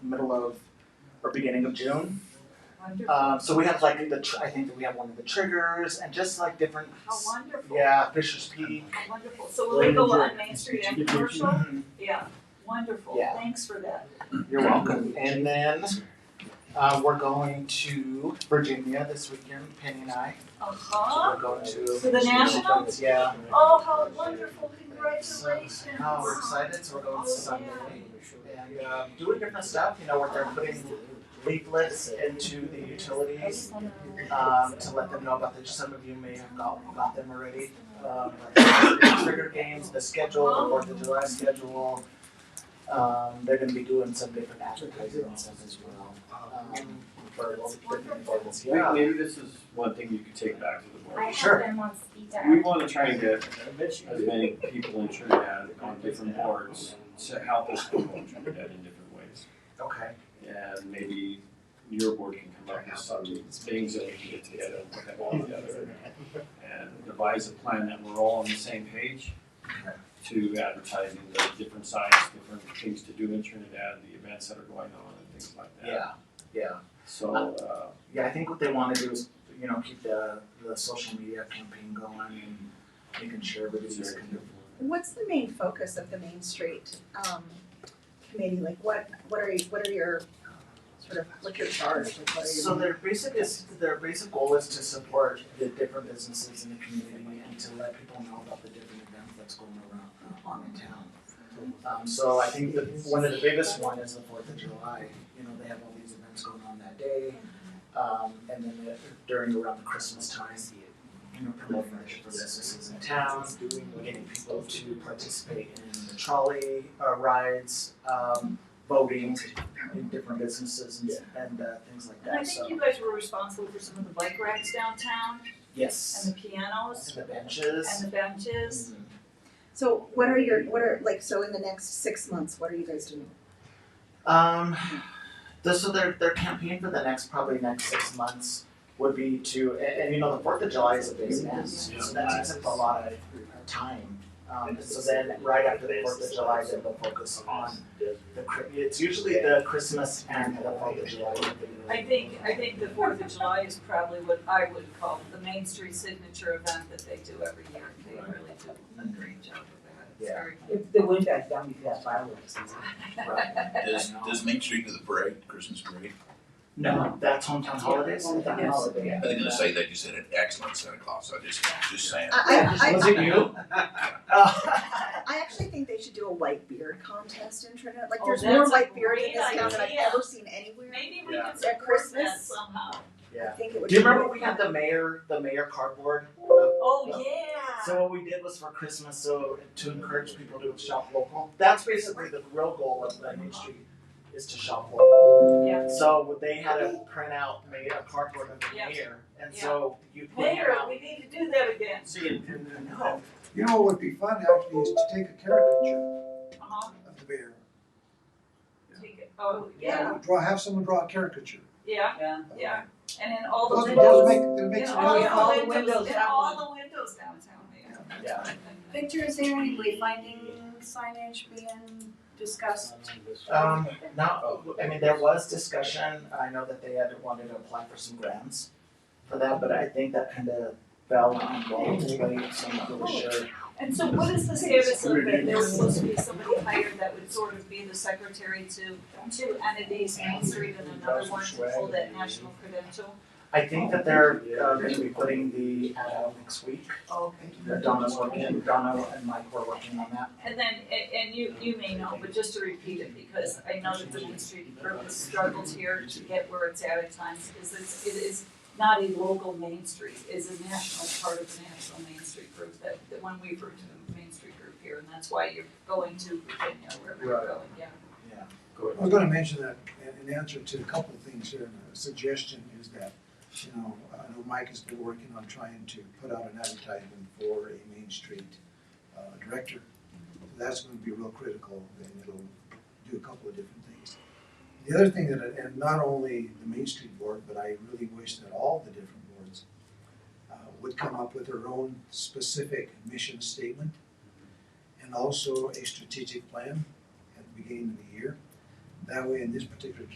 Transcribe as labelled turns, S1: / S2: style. S1: middle of or beginning of June.
S2: Wonderful,
S1: Um, so we have like the tr- I think that we have one of the triggers and just like different.
S2: how wonderful,
S1: Yeah, Fisher's Peak.
S2: how wonderful. So will they go on Main Street and commercial?
S1: Mhm.
S2: Yeah, wonderful,
S1: Yeah.
S2: thanks for that.
S1: You're welcome. And then uh, we're going to Virginia this weekend. Penny and I.
S2: Uh-huh,
S1: We're going to.
S2: To the National?
S1: Yeah.
S2: oh, how wonderful, congratulations.
S1: No, we're excited. So we're going Sunday
S2: Oh,
S1: and um, doing different stuff. You know, where they're putting leaflets into the utilities. um, to let them know about this. Some of you may have got, got them already. Um, like trigger games, the schedule, the Fourth of July schedule. Um, they're going to be doing some different advertising and stuff as well. Um, for local different events.
S3: Maybe,
S1: Yeah.
S3: maybe this is one thing you could take back to the
S4: I
S3: board.
S4: have
S1: Sure.
S4: them on speed
S3: We
S4: dial.
S3: wanna try and get as many people in Trinidad on different boards to help us promote Trinidad in different ways.
S1: Okay.
S3: And maybe your board can come up with some things that we can get together and put them all together. And devise a plan that we're all on the same page to advertising the different sites, different things to do in Trinidad, the events that are going on and things like that.
S1: Yeah. Yeah.
S3: So, uh,
S1: Yeah. I think what they want to do is, you know, keep the, the social media campaign going and making sure everybody's kind of.
S5: What's the main focus of the Main Street um committee? Like what what are you, what are your sort of what's your charge? Like what are your
S1: So their basic is, their basic goal is to support the different businesses in the community and to let people know about the different events that's going around uh, on in town. Um, so I think the, one of the biggest one is the Fourth of July, you know, they have all these events going on that day. Um, and then the- during around the Christmas time, you know, promoting the different businesses in town, getting people to participate in the trolley, uh, rides, um, voting in different businesses and, and, uh, things like
S2: And I
S1: that, so.
S2: think you guys were responsible for some of the bike racks downtown
S1: Yes.
S2: and the pianos
S1: the benches.
S2: and the benches.
S1: Mhm.
S5: So what are your what are like so in the next six months, what are you guys doing?
S1: Um, this, so their, their campaign for the next, probably next six months would be to, and, and you know, the Fourth of July is a big event, so that takes up a lot of time. Um, so then, right after the Fourth of July, then they'll focus on the, Chri- it's usually the Christmas and the Fourth of July.
S2: I think, I think the Fourth of July is probably what I would call the Main Street signature event that they do every year. They really do a great job with that. It's
S1: Yeah.
S2: very good.
S6: If the wind dies down, you could have fireworks.
S1: Right.
S7: Does, does Main Street do the parade, Christmas parade?
S1: No, that's hometown holidays, hometown
S6: Yes.
S1: holiday.
S7: I think I'm gonna say that you said an excellent Santa Claus, so I just, just saying.
S5: I I
S1: Was
S5: I
S1: it you? Uh,
S5: I actually think they should do a white beard contest in Trinidad. Like
S2: Oh,
S5: there's
S2: that's
S5: more
S2: a
S5: white beard in this
S2: great
S5: town than I've
S2: idea.
S5: ever seen anywhere.
S2: Maybe we
S1: Yeah.
S2: can support that
S5: Christmas?
S2: somehow.
S5: I
S1: Yeah.
S5: think it would
S1: Do you
S5: be
S1: remember
S5: really
S1: we had
S5: fun.
S1: the mayor, the mayor cardboard?
S2: Oh, yeah.
S1: So what we did was for Christmas, so to encourage people to shop local. That's basically the real goal of the Main Street is to shop local.
S2: Yeah.
S1: So what they had a printout made a cardboard of the
S2: Yeah.
S1: mayor, and so you put it
S2: Mayor,
S1: out.
S2: we need to do that again.
S3: see, and, and,
S1: No.
S8: You know what would be fun actually is to take a caricature
S2: Uh-huh.
S8: of the bear.
S2: Take it. Oh, yeah,
S8: Draw, have someone draw a caricature.
S2: yeah,
S6: Yeah.
S2: yeah. And in all the
S8: Those,
S2: windows,
S8: those make, that
S2: in
S8: makes it
S2: all
S8: really
S6: yeah.
S8: fun.
S2: the windows, in
S6: have
S2: all the windows downtown, Mayor.
S1: Yeah.
S4: Victor, is there any wayfinding signage being discussed?
S1: Um, now, I mean, there was discussion, I know that they had wanted to apply for some grants for that, but I think that kind of fell on hold, anybody, so I'm not really sure.
S2: And so what is the status of that? There was supposed to be somebody hired that would sort of be the secretary to two entities, Main Street and another one to hold that national credential.
S1: I think that they're, uh, gonna be putting the ad out next week.
S2: Okay.
S1: that Donna's working, Donna and Mike were working on that.
S2: And then, and, and you, you may know, but just to repeat it, because I know that the Main Street group has struggled here to get where it's at at times, is it's, it is not a local Main Street, it's a national, part of the national Main Street group, that, that when we refer to the Main Street group here, and that's why you're going to Virginia, wherever you're
S1: Right.
S2: going, yeah.
S8: I was gonna mention that in, in answer to a couple of things here, and a suggestion is that, you know, I know Mike has been working on trying to put out an advertisement for a Main Street, uh, director. That's gonna be real critical, and it'll do a couple of different things. The other thing that, and not only the Main Street Board, but I really wish that all the different boards uh, would come up with their own specific mission statement and also a strategic plan at the beginning of the year. That way, in this particular